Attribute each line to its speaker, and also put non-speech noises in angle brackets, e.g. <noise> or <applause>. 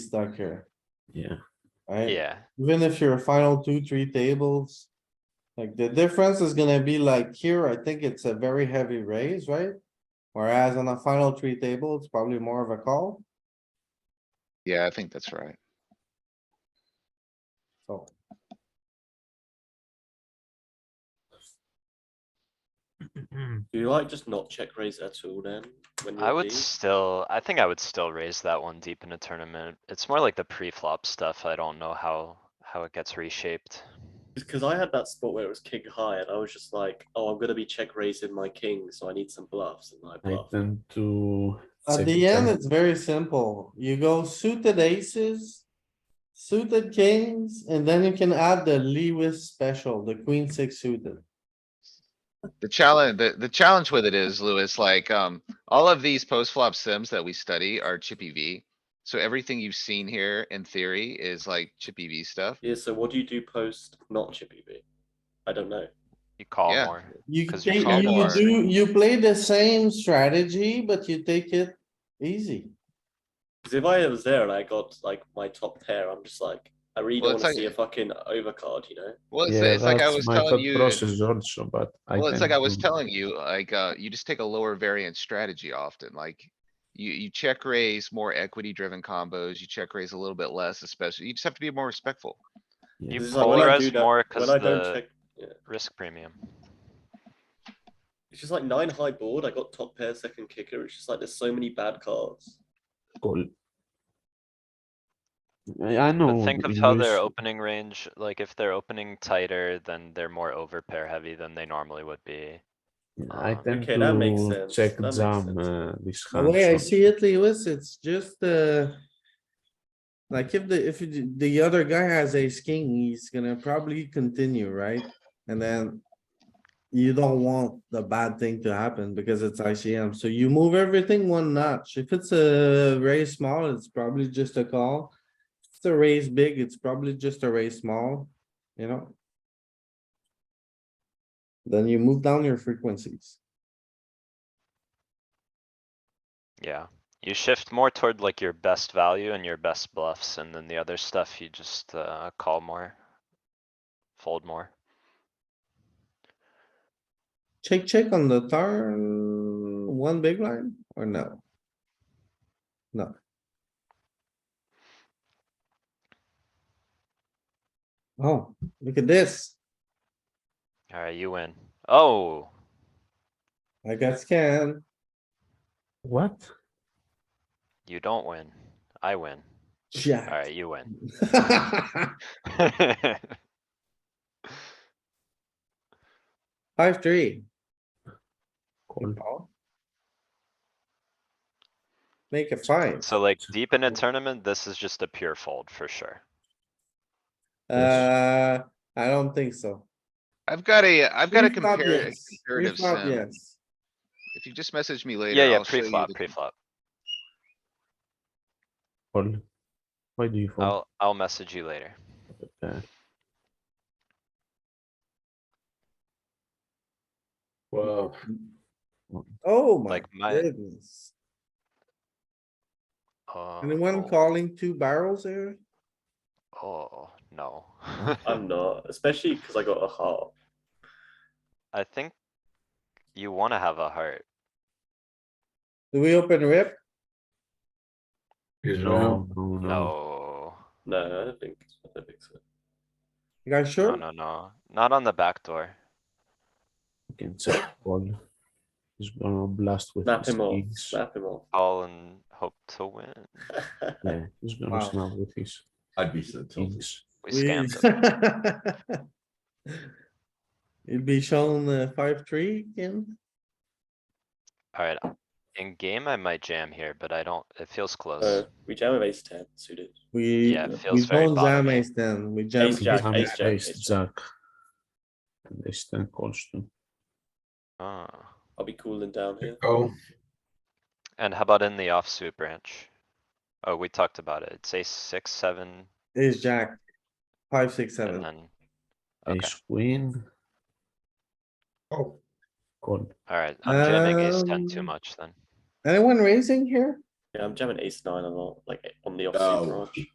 Speaker 1: stuck here,
Speaker 2: Yeah,
Speaker 1: right?
Speaker 3: Yeah,
Speaker 1: Even if you're a final two, three tables. Like the difference is gonna be like here, I think it's a very heavy raise, right? Whereas on the final three table, it's probably more of a call,
Speaker 4: Yeah, I think that's right.
Speaker 1: so.
Speaker 5: Do you like just not check raise at all then? When
Speaker 3: I
Speaker 5: you're
Speaker 3: would
Speaker 5: deep?
Speaker 3: still, I think I would still raise that one deep in a tournament. It's more like the pre-flop stuff. I don't know how, how it gets reshaped.
Speaker 5: Because I had that spot where it was king high, and I was just like, "Oh, I'm gonna be check raising my king, so I need some bluffs." And I
Speaker 2: I
Speaker 5: bluff.
Speaker 2: tend to.
Speaker 1: At
Speaker 2: save
Speaker 1: the end,
Speaker 2: time.
Speaker 1: it's very simple. You go suited aces. Suited kings, and then you can add the Lewis special, the queen six suited.
Speaker 4: The challenge, the, the challenge with it is, Louis, like, um, all of these post flop sims that we study are chippy V. So everything you've seen here in theory is like chippy V stuff.
Speaker 5: Yeah. So what do you do post not chippy V? I don't know.
Speaker 3: You call
Speaker 4: Yeah.
Speaker 3: more.
Speaker 1: You
Speaker 3: 'Cause you
Speaker 1: take,
Speaker 4: call
Speaker 1: you
Speaker 4: more.
Speaker 1: do, you play the same strategy, but you take it easy.
Speaker 5: Because if I was there and I got like my top pair, I'm just like, I really
Speaker 4: Well,
Speaker 5: don't
Speaker 4: it's
Speaker 5: want to
Speaker 4: like-
Speaker 5: see a fucking overcard, you know?
Speaker 4: Well, it's,
Speaker 2: Yeah,
Speaker 4: it's like I
Speaker 2: that's
Speaker 4: was
Speaker 2: my
Speaker 4: telling
Speaker 2: thought
Speaker 4: you.
Speaker 2: Process also, but I. Mm.
Speaker 4: Well, it's like
Speaker 2: tend
Speaker 4: I was
Speaker 2: to-
Speaker 4: telling you, like, uh, you just take a lower variance strategy often, like. You, you check raise more equity driven combos, you check raise a little bit less, especially, you just have to be more respectful.
Speaker 2: Yeah.
Speaker 3: You
Speaker 5: This is like when I do
Speaker 3: polarize
Speaker 5: that-
Speaker 3: more
Speaker 5: When
Speaker 3: cuz
Speaker 5: I don't
Speaker 3: the
Speaker 5: check, yeah.
Speaker 3: risk premium.
Speaker 5: it's just like nine high board. I got top pair, second kicker. It's just like there's so many bad cards.
Speaker 2: Cool. I, I know.
Speaker 3: But think of
Speaker 2: in
Speaker 3: how their
Speaker 2: Greece-
Speaker 3: opening range, like if they're opening tighter, then they're more overpair heavy than they normally would be.
Speaker 2: I
Speaker 3: Ah,
Speaker 2: tend
Speaker 5: okay, that makes
Speaker 2: to
Speaker 5: sense,
Speaker 2: check
Speaker 5: that makes
Speaker 2: jam,
Speaker 5: sense.
Speaker 2: uh, this
Speaker 1: The
Speaker 2: hand.
Speaker 1: way I
Speaker 2: so-
Speaker 1: see it, Lewis, it's just, uh. Like if the, if you- the other guy has ace king, he's gonna probably continue, right? And then. You don't want the bad thing to happen because it's ICM, so you move everything one notch. If it's a raise small, it's probably just a call. If it's a raise big, it's probably just a raise small, you know? Then you move down your frequencies.
Speaker 3: Yeah, you shift more toward like your best value and your best bluffs, and then the other stuff you just uh call more. Fold more.
Speaker 1: Check, check on the turn, one big line or no? No. Oh, look at this.
Speaker 3: Alright, you win. Oh,
Speaker 1: I got scanned.
Speaker 2: What?
Speaker 3: you don't win. I win.
Speaker 1: Jack.
Speaker 3: Alright, you win. <laughs>
Speaker 1: <laughs> Five, three.
Speaker 2: Cool.
Speaker 4: Oh.
Speaker 1: Make it five.
Speaker 3: So like deep in a tournament, this is just a pure fold for sure.
Speaker 1: Uh, I don't think so.
Speaker 4: I've got a, I've got a
Speaker 1: Pre-flop,
Speaker 4: comparative,
Speaker 1: yes.
Speaker 4: comparative
Speaker 1: Pre-flop,
Speaker 4: sim.
Speaker 1: yes.
Speaker 4: If you just message me later,
Speaker 3: Yeah, yeah,
Speaker 4: I'll show you
Speaker 3: pre-flop,
Speaker 4: the-
Speaker 3: pre-flop.
Speaker 2: Cool. Why do you
Speaker 4: Oh.
Speaker 2: fold?
Speaker 3: I'll, I'll message you later.
Speaker 2: Uh, Wow.
Speaker 1: Oh my
Speaker 3: Like my-
Speaker 1: goodness.
Speaker 3: Oh,
Speaker 1: Anyone
Speaker 3: oh,
Speaker 1: calling two barrels here?
Speaker 3: Oh, no.
Speaker 5: I'm not, especially because I got a heart.
Speaker 3: <laughs> I think you wanna have a heart.
Speaker 1: Do we open rip?
Speaker 2: No, no, no.
Speaker 3: No,
Speaker 5: No, I don't think. I don't think so.
Speaker 1: You guys
Speaker 3: no,
Speaker 1: sure?
Speaker 3: no, no, not on the back door.
Speaker 2: You Can check call. He's gonna blast with
Speaker 5: Snap
Speaker 2: his
Speaker 5: him off.
Speaker 2: kings.
Speaker 5: Snap him off.
Speaker 3: Call and hope to win.
Speaker 5: <laughs>
Speaker 2: Yeah, he's
Speaker 1: Wow.
Speaker 2: gonna snap with his
Speaker 6: I'd be
Speaker 2: É
Speaker 6: so tilted.
Speaker 2: kings.
Speaker 3: We
Speaker 1: We-
Speaker 3: scammed
Speaker 1: <laughs>
Speaker 3: them.
Speaker 1: It'd be shown uh, five, three again.
Speaker 3: Alright, in game I might jam here, but I don't, it feels
Speaker 5: Uh,
Speaker 3: close.
Speaker 5: we jam with ace ten suited.
Speaker 1: We,
Speaker 3: Yeah, it
Speaker 1: we
Speaker 3: feels very
Speaker 1: don't jam
Speaker 3: bottomy.
Speaker 1: ace ten, we jam.
Speaker 5: Ace jack,
Speaker 2: Become
Speaker 5: ace jack,
Speaker 2: ace
Speaker 5: ace
Speaker 2: jack. And ace ten calls too.
Speaker 3: Oh,
Speaker 5: I'll be cooling down here.
Speaker 6: Oh,
Speaker 3: and how about in the offsuit branch? Oh, we talked about it. It's ace six, seven,
Speaker 1: Ace jack, five, six,
Speaker 3: and
Speaker 1: seven.
Speaker 3: then, okay,
Speaker 2: Ace queen,
Speaker 6: oh,
Speaker 2: call.
Speaker 3: alright, I'm jamming ace ten too
Speaker 1: Um,
Speaker 3: much then.
Speaker 1: Anyone raising here?
Speaker 5: Yeah, I'm jamming ace nine a lot, like on the
Speaker 6: Oh.
Speaker 5: offsuit branch.